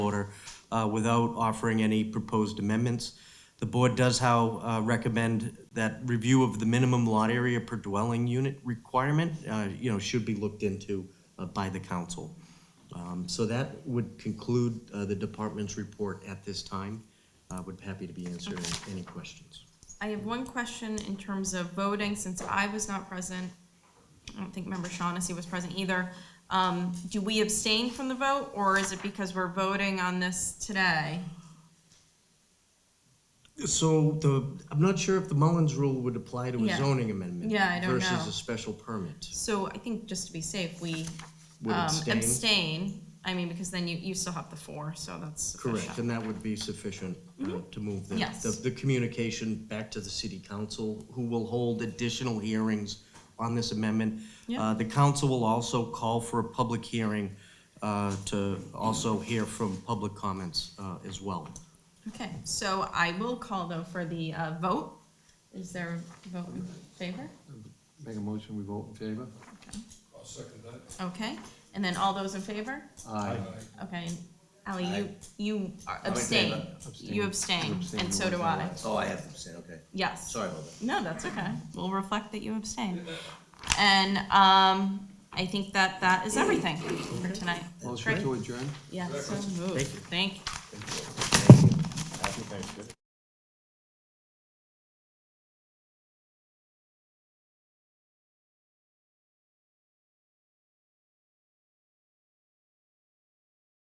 order uh, without offering any proposed amendments. The board does, how, uh, recommend that review of the minimum lot area per dwelling unit requirement, uh, you know, should be looked into uh, by the council. Um, So that would conclude uh, the department's report at this time. Uh, Would be happy to be answering any questions. I have one question in terms of voting, since I was not present. I don't think member Shaughnessy was present either. Um, do we abstain from the vote, or is it because we're voting on this today? So the, I'm not sure if the Mullins rule would apply to a Yeah. zoning amendment. Yeah, I don't Versus know. a special permit. So I think just to be safe, we Would um, abstain? abstain. I mean, because then you, you still have the four, so that's Correct, sufficient. and that would be sufficient uh, to move the, Mm-hmm. Yes. the- the communication back to the city council, who will hold additional hearings on this amendment. Yeah. Uh, The council will also call for a public hearing uh, to also hear from public comments uh, as well. Okay, so I will call though for the uh, vote. Is there a vote in favor? Make a motion, we vote in favor? Okay. I'll second that. Okay, and then all those in favor? Aye. Okay, Ally, you, Aye. you are in abstain, favor. you abstain, Abstain. and so do I, Oh, I have to abstain, okay. yes. Sorry about that. No, that's okay, we'll reflect that you abstain. And, um, I think that that is everything for tonight. Motion Great. to adjourn? Yeah, so moved, Thank you. thank you.